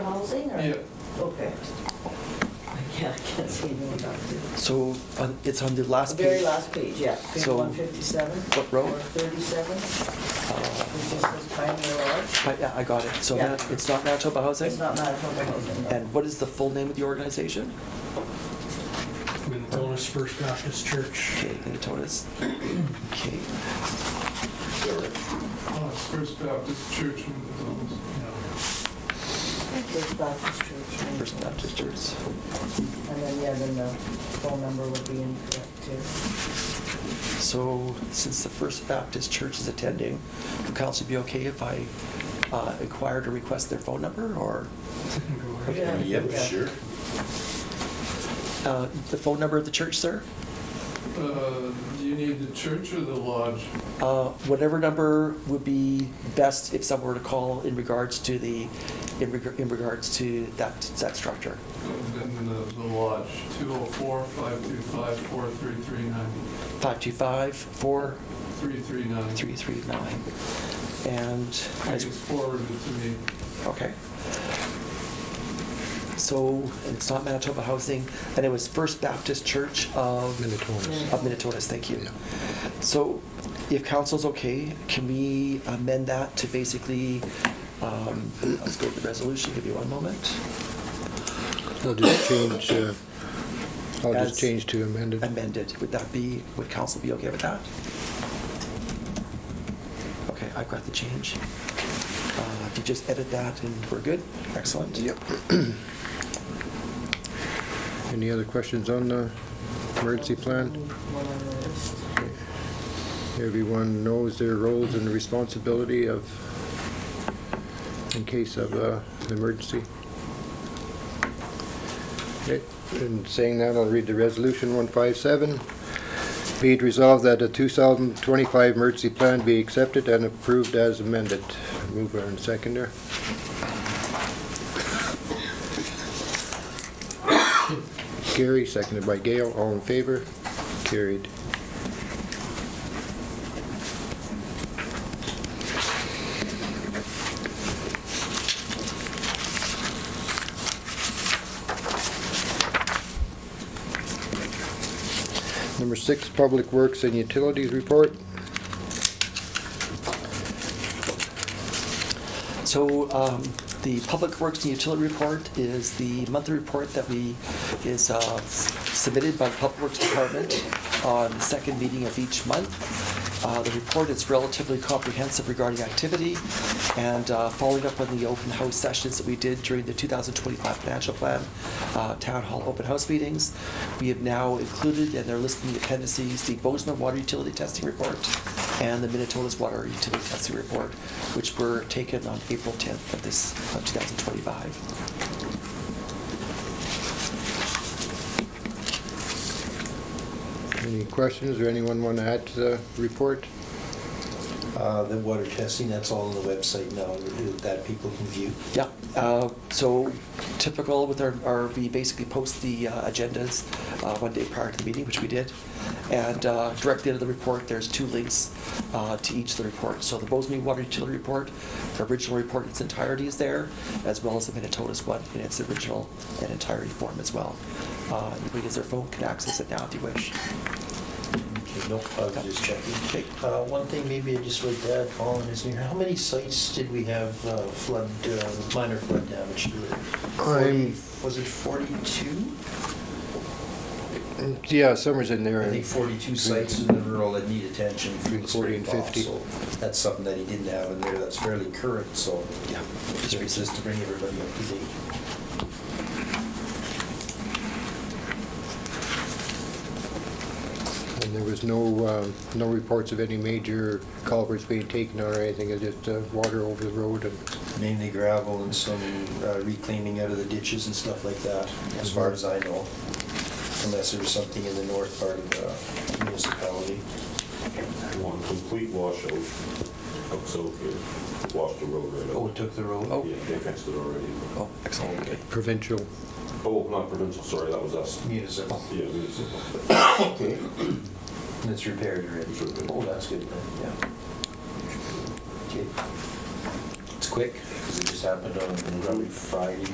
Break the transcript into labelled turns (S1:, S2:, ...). S1: or?
S2: Yeah.
S1: Okay. Yeah, I can't see anyone up there.
S3: So on- it's on the
S1: The
S3: last page.
S1: very last page, yeah, page
S3: So-
S1: 157.
S3: What row?
S1: Or 37,
S3: Uh,
S1: it just says Pioneer Lodge.
S3: but yeah, I got it. So
S1: Yeah.
S3: that- it's not Manitoba Housing?
S1: It's not Manitoba Housing. no.
S3: eh? And what is the full name of the organization?
S4: Minnetonka's First Baptist Church.
S3: Okay, Minnetonka's. Okay,
S2: Uh, First Baptist Church in Milton.
S4: you know.
S1: First Baptist Church. and-
S3: First Baptist Church.
S1: And then, yeah, then the phone number would be incorrect too.
S3: So since the First Baptist Church is attending, would council be okay if I uh, inquire to request their phone number or
S4: It can go right.
S1: Yeah.
S5: Yep,
S1: Yeah.
S5: sure.
S3: uh, the phone number of the church, sir?
S2: Uh, Do you need the church or the lodge?
S3: Uh, Whatever number would be best if someone were to call in regards to the, in reg- in regards to that, that structure.
S2: Then the the lodge, 204-525-4339.
S3: 525-4339.
S2: 339.
S3: And,
S2: I
S3: as-
S2: just forwarded it to me.
S3: okay. So it's not Manitoba Housing, and it was First Baptist Church of
S1: Minnetonka's.
S3: of Minnetonka's, thank you. So if council's okay, can we amend that to basically, um, let's go to the resolution, give you one moment.
S6: I'll just change, uh, I'll
S3: As
S6: just change to amended.
S3: amended. Would that be, would council be okay with that? Okay, I've got the change. Uh, If you just edit that and we're good, excellent. Yep.
S6: Any other questions on the emergency plan?
S1: One on the list.
S6: Everyone knows their roles and responsibility of, in case of uh, an emergency. Okay, And saying that, I'll read the resolution 157. Be it resolved that the 2025 emergency plan be accepted and approved as amended. Mover and seconder. Gary, seconded by Gail, all in favor? Carried. Number six, Public Works and Utilities Report.
S3: So um, the Public Works and Utility Report is the monthly report that we, is uh, submitted by the Public Works Department on the second meeting of each month. Uh, The report is relatively comprehensive regarding activity and uh, following up on the open house sessions that we did during the 2025 financial plan, uh, town hall open house meetings. We have now included, and they're listed in the appendices, the Bozeman Water Utility Testing Report and the Minnetonka's Water Utility Testing Report, which were taken on April 10th of this, of 2025.
S6: Any questions or anyone want to add to the report?
S5: Uh, The water testing, that's all on the website now, that people can view.
S3: Yeah, uh, so typical with our, our, we basically post the uh, agendas uh, one day prior to the meeting, which we did. And uh, directly under the report, there's two links uh, to each of the reports. So the Bozeman Water Utility Report, the original report in its entirety is there, as well as the Minnetonka's one in its original and entirety form as well. Uh, Anybody has their phone can access it now if you wish.
S5: Okay, No, I was just checking.
S3: Okay.
S5: Uh, One thing maybe I just would add, Colin, is here, how many sites did we have uh, flood, uh, minor flood damage to?
S6: I'm-
S5: Forty- Was it 42?
S6: Yeah, Summer's in there.
S5: I think 42 sites in the rural that need attention through the
S6: Forty
S5: spring
S6: and
S5: thaw,
S6: 50.
S5: so that's something that he didn't have in there that's fairly current, so.
S3: Yeah, just
S5: It's
S3: recent.
S5: just to bring everybody up to date.
S6: And there was no, um, no reports of any major culverts being taken out or anything, it's just uh, water over the road and
S5: Mainly gravel and some uh, reclaiming out of the ditches and stuff like that, as far as I know. Unless there was something in the north part of the municipality.
S7: One complete washout of South here, washed the road right
S5: Oh,
S7: out.
S5: it took the road?
S3: Oh.
S7: Yeah, they fenced it already.
S3: Oh, excellent, okay.
S6: provincial.
S7: Oh, not provincial, sorry, that was us.
S5: Municipal.
S7: Yeah, municipal.
S5: Okay. And it's repaired already?
S7: It's repaired.
S5: Oh, that's good, then, yeah. Okay. It's quick, because it just happened on probably Friday,